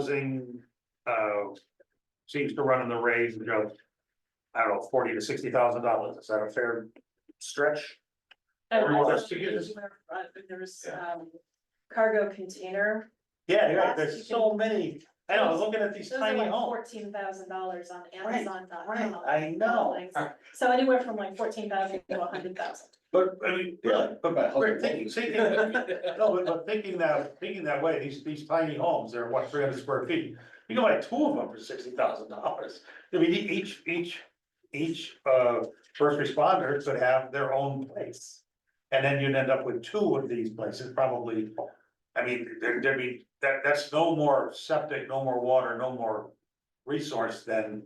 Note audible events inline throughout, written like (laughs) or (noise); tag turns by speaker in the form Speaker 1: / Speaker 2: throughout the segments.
Speaker 1: housing, uh, seems to run in the range of, I don't know, forty to sixty thousand dollars, is that a fair stretch?
Speaker 2: And
Speaker 1: Everyone
Speaker 2: also
Speaker 1: has to get this.
Speaker 2: where, uh, There's um cargo container,
Speaker 1: Yeah, yeah, there's so many, I know, I was looking at these
Speaker 2: those are
Speaker 1: tiny
Speaker 2: like
Speaker 1: homes.
Speaker 2: fourteen thousand dollars on
Speaker 1: Right,
Speaker 2: Amazon dot
Speaker 1: right,
Speaker 2: com.
Speaker 1: I know.
Speaker 2: So anywhere from like fourteen thousand to a hundred thousand.
Speaker 1: But, I mean, really,
Speaker 3: But my
Speaker 1: we're
Speaker 3: husband
Speaker 1: thinking,
Speaker 3: won't.
Speaker 1: thinking, no, but, but thinking that, thinking that way, these, these tiny homes, they're what, three hundred square feet? You can buy two of them for sixty thousand dollars, I mean, e- each, each, each, uh, first responder could have their own place. And then you'd end up with two of these places, probably, I mean, there, there'd be, that, that's no more septic, no more water, no more resource than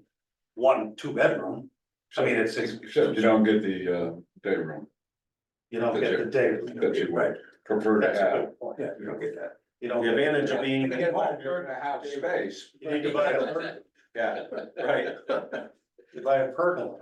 Speaker 1: one two-bedroom. I mean, it's, it's,
Speaker 3: Except you don't get the uh day room,
Speaker 1: you don't get the day.
Speaker 3: That's it.
Speaker 1: Right,
Speaker 3: prefer to
Speaker 1: that's a
Speaker 3: have.
Speaker 1: good point,
Speaker 3: Yeah, you don't get that.
Speaker 1: you know, the advantage of being.
Speaker 3: And again, if you're in a half space.
Speaker 1: You need to (laughs) buy a, per-
Speaker 3: Yeah,
Speaker 1: right, you buy a pergola.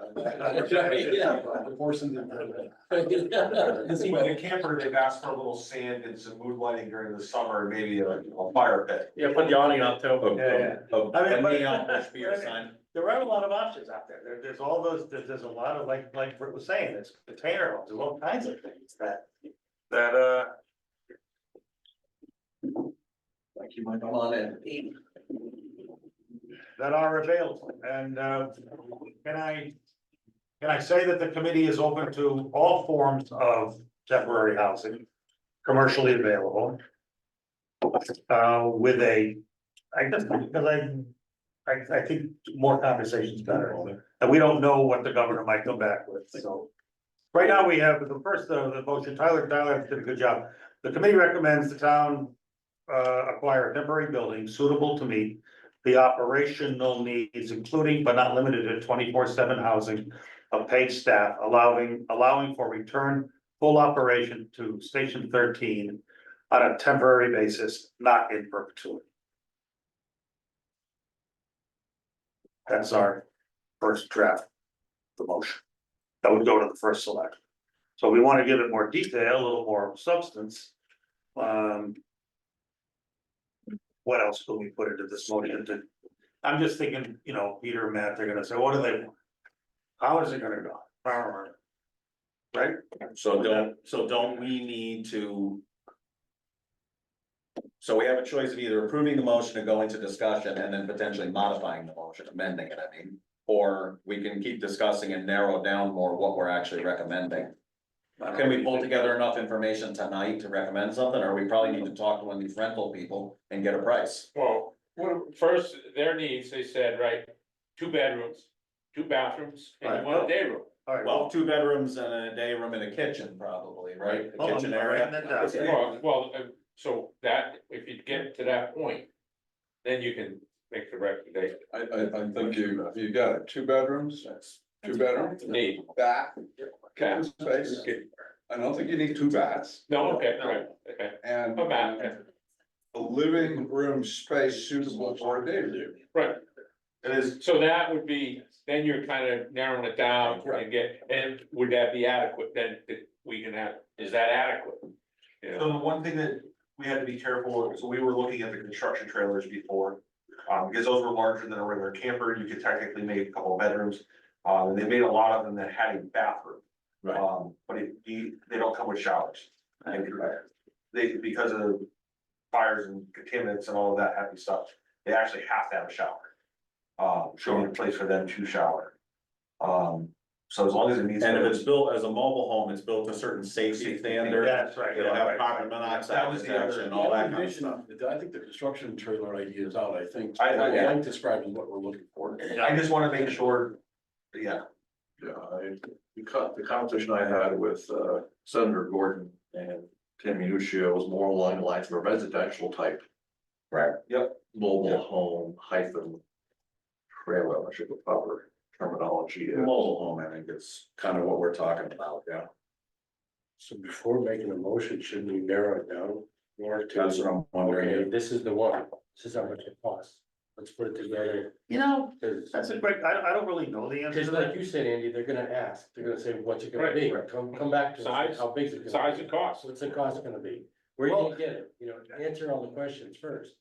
Speaker 4: See, with a camper, they've asked for a little sand and some mood lighting during the summer, and maybe a, a fire pit.
Speaker 5: Yeah, put the awning up too.
Speaker 1: Yeah,
Speaker 4: Oh,
Speaker 1: I mean, but-
Speaker 4: beer sign.
Speaker 1: There are a lot of options out there, there, there's all those, there's, there's a lot of, like, like Britt was saying, there's container homes, there's all kinds of things that, that, uh.
Speaker 3: Like you might come on in.
Speaker 1: that are available, and, uh, can I? Can I say that the committee is open to all forms of temporary housing, commercially available? Uh, with a, I guess, because I, I, I think more conversations better, and we don't know what the governor might come back with, so. Right now, we have the first, uh, the motion, Tyler, Tyler did a good job, the committee recommends the town. Uh, acquire a temporary building suitable to meet the operational needs, including but not limited to twenty-four seven housing of paid staff, allowing, allowing for return full operation to Station thirteen on a temporary basis, not in perpetuity. That's our first draft, the motion. That would go to the first select. So we want to give it more detail, a little more substance. Um, what else can we put into this motion to? I'm just thinking, you know, Peter and Matt, they're gonna say, what do they? want? How is it gonna go? Power. Right?
Speaker 6: So don't, so don't we need to? So we have a choice of either approving the motion and going to discussion and then potentially modifying the motion, amending it, I mean. Or we can keep discussing and narrow down more what we're actually recommending. Can we pull together enough information tonight to recommend something, or we probably need to talk to one of these rental people and get a price?
Speaker 7: Well, what- first, their needs, they said, right, two bedrooms, two bathrooms, and
Speaker 1: Right.
Speaker 7: one day room.
Speaker 1: All right,
Speaker 6: Well, two bedrooms and a day room and a kitchen probably, right? A
Speaker 1: Hold on,
Speaker 6: kitchen
Speaker 1: Oh, I'm writing
Speaker 6: area.
Speaker 1: that down.
Speaker 6: Yeah.
Speaker 7: Well, well, uh, so that, if you get to that point, then you can make the recommendation,
Speaker 3: I I I think you you got it, two bedrooms, two bedrooms,
Speaker 7: need,
Speaker 3: bath,
Speaker 7: okay,
Speaker 3: kitchen space. I don't think you need two baths
Speaker 7: no, okay, right, okay,
Speaker 3: and.
Speaker 7: a bath, yeah.
Speaker 3: A living room space suitable for a day room.
Speaker 7: right,
Speaker 4: It is,
Speaker 7: so that would be, then you're kind of narrowing it down and get, and would that be adequate, then that we can have, is that adequate? You know,
Speaker 4: so the one thing that we had to be careful, of, so we were looking at the construction trailers before. Um, because those were larger than a regular camper, you could technically make a couple of bedrooms, uh, and they made a lot of them that had a bathroom.
Speaker 6: Right.
Speaker 4: Um, but it, you, they don't come with showers. They, because of fires and contaminants and all of that happy stuff, they actually have to have a shower. Um, showing a place for them to shower. Um, so as long as it meets.
Speaker 6: And if it's built as a mobile home, it's built to certain safety standards.
Speaker 1: That's right.
Speaker 6: It'll have carbon
Speaker 4: That
Speaker 6: monoxide
Speaker 4: was the other-
Speaker 6: detection, all that kind of stuff.
Speaker 3: I think the construction trailer idea is out, I think.
Speaker 4: I- I- yeah.
Speaker 3: like describing what we're looking for.
Speaker 4: I just wanna make sure, yeah,
Speaker 8: Yeah, I, the co- the conversation I had with uh, Senator Gordon and Tim Minuccio was more along the lines of a residential type.
Speaker 6: Right.
Speaker 4: Yep.
Speaker 8: Mobile home hyphen trailer, I should have proper terminology. is.
Speaker 6: Mobile home, I think is kind of what we're talking about, yeah.
Speaker 3: So before making a motion, shouldn't we narrow it down? Or
Speaker 6: That's what I'm wondering.
Speaker 3: Okay, this is the one, this is how much it costs, let's put it together,
Speaker 1: You know,
Speaker 3: cause,
Speaker 1: that's a great, I, I don't really know the answer
Speaker 3: 'cause
Speaker 1: to
Speaker 3: like
Speaker 1: that.
Speaker 3: you said, Andy, they're gonna ask, they're gonna say, what's it gonna be, come, come back to
Speaker 7: Size-
Speaker 3: us, how big is it gonna
Speaker 7: size
Speaker 3: be?
Speaker 7: and cost.
Speaker 3: What's the cost gonna be, where are you gonna get it, you know, answer all the questions first,